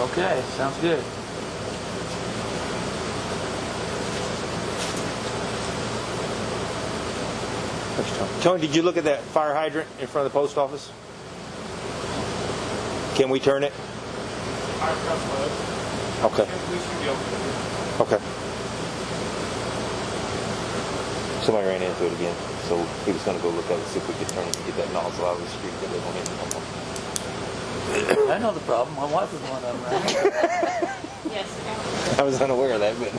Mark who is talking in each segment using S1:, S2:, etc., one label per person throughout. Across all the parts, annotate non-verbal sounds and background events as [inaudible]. S1: Okay, sounds good.
S2: Tony, did you look at that fire hydrant in front of the post office? Can we turn it?
S3: Fire truck load.
S2: Okay,
S3: We should be able to.
S2: okay. Somebody ran into it again, so he was gonna go look at it, see if we could turn it, get that nozzle out of the street that they don't have no more.
S1: I know the problem. My wife was one of them, right?
S4: Yes, apparently.
S2: I was unaware of that, but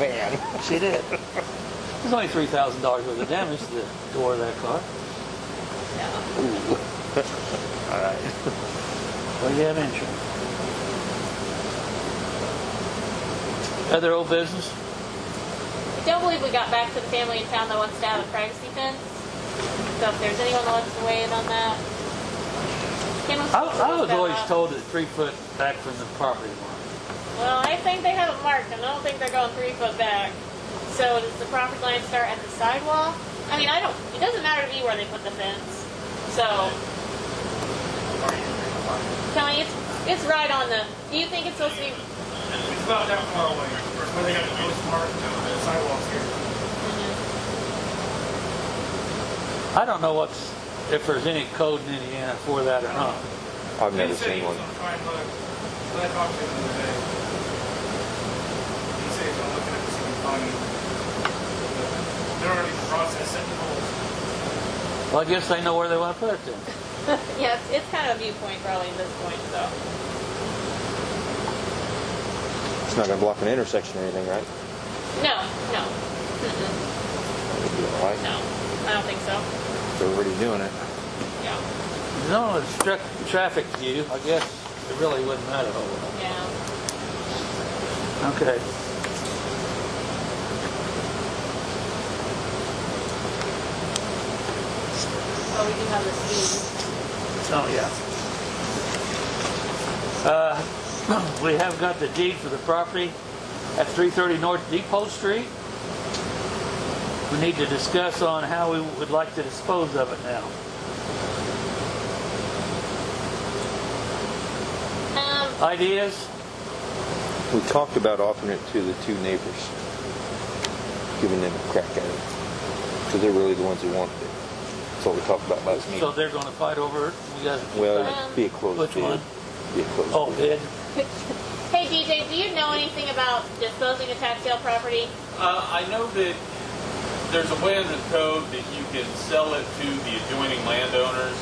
S2: [laughs] man.
S1: She did. There's only three thousand dollars worth of damage to the door of that car.
S4: No.
S1: Well, you have insurance. Other old business?
S4: I don't believe we got back to the family in town that wants to have a privacy fence. So if there's anyone that wants to weigh in on that. Kim was
S1: I,
S4: supposed to
S1: I
S4: look
S1: was
S4: that
S1: always
S4: up.
S1: told that three foot back from the property line.
S4: Well, I think they have it marked, and I don't think they're going three foot back. So does the property line start at the sidewalk? I mean, I don't, it doesn't matter to me where they put the fence. So, Tony, it's, it's right on the, do you think it's supposed to be, [laughs]
S3: It's not that far away. It's where they got the most marked uh, sidewalks here.
S1: I don't know what's, if there's any code in Indiana for that or not.
S2: I've
S3: They
S2: never
S3: said he
S2: seen
S3: was
S2: one.
S3: gonna try and look, but I talked to him the other day. He said he's gonna look at it and see if he can find it. But They're already in the process setting holes.
S1: Well, I guess they know where they want to put it then.
S4: yeah, it's, it's kind of a viewpoint probably at this point, so.
S2: It's not gonna block an intersection or anything, right?
S4: No, no, Mm-mm,
S2: It'll be all right.
S4: no, I don't think so,
S2: They're already doing it.
S4: yeah,
S1: No, it's tra- traffic view, I guess it really wouldn't matter a whole lot.
S4: yeah.
S1: Okay.
S4: Well, we do have the speed.
S1: Oh, yeah. Uh, [clears throat] we have got the deed for the property at 330 North Depot Street. We need to discuss on how we would like to dispose of it now.
S4: Um,
S1: Ideas?
S2: We talked about offering it to the two neighbors, giving them a crack at it, because they're really the ones who want it. That's what we talked about last
S1: So
S2: meeting.
S1: th're gonna fight over it? We got,
S2: Well, it'd be a close
S1: Which
S2: bid.
S1: one?
S2: Be a close
S1: oh,
S2: bid.
S1: bid?
S4: Hey DJ, do you know anything about disposing of tax sale property?
S5: Uh, I know that there's a way in the code that you can sell it to the adjoining landowners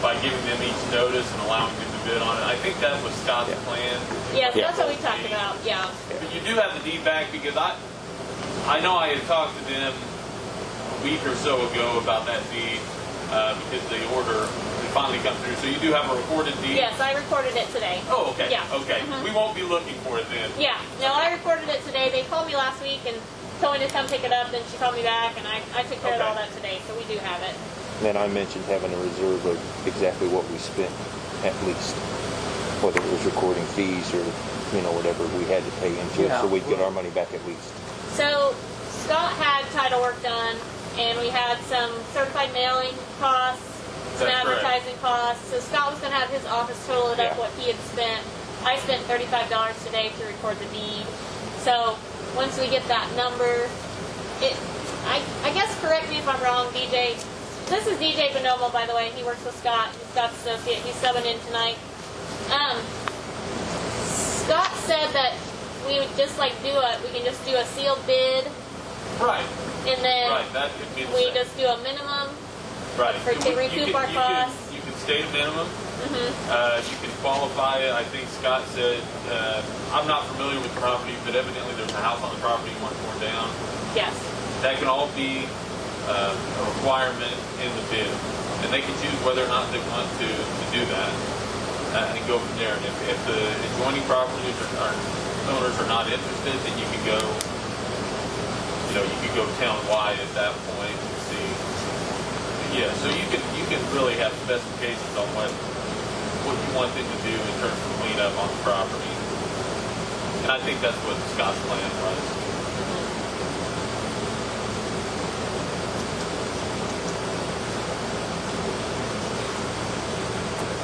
S5: by giving them each notice and allowing them to bid on it. I think that was Scott's
S2: Yeah.
S5: plan.
S4: Yes,
S2: Yeah.
S4: that's what we talked about. Yeah.
S5: But you do have the deed back because I, I know I had talked to them a week or so ago about that deed uh, because the order had finally come through. So you do have a recorded deed.
S4: Yes, I recorded it today.
S5: Oh, okay.
S4: Yeah.
S5: Okay.
S4: Mhm.
S5: We won't be looking for it then.
S4: Yeah. No, I recorded it today. They called me last week and told me to come pick it up. Then she called me back, and I, I took care of all
S5: Okay.
S4: that today. So we do have it.
S2: Then I mentioned having a reserve of exactly what we spent, at least, whether it was recording fees or, you know, whatever we had to pay into it,
S1: Yeah.
S2: so we'd get our money back at least.
S4: So Scott had title work done, and we had some certified mailing costs, some
S5: That's correct.
S4: advertising costs. So Scott was going to have his office total it
S2: Yeah.
S4: up what he had spent. I spent thirty-five dollars today to record the deed. So once we get that number, it I I guess correct me if I'm wrong, DJ. This is DJ Bonomo, by the way. He works with Scott. He's Scott's associate. He's subbing in tonight. Um, Scott said that we would just like do a, we can just do a sealed bid
S5: Right.
S4: and then
S5: Right. That could be the
S4: we
S5: same.
S4: just do a minimum.
S5: Right.
S4: for- to
S5: You- you
S4: recoup
S5: can-
S4: our
S5: you can-
S4: costs.
S5: You can stay at minimum. Uh, you can qualify it. I think Scott said, uh, I'm not familiar with the property, but evidently there's a house on the property one floor down.
S4: Yes.
S5: That can all be uh, a requirement in the bid. And they can choose whether or not they want to, to do that uh, and go from there. And if, if the adjoining properties or or owners are not interested, then you can go, you know, you could go townwide at that point and see. Yeah, so you can, you can really have specifications on what, what you want them to do in terms of cleanup on the property. And I think that's what Scott's plan was.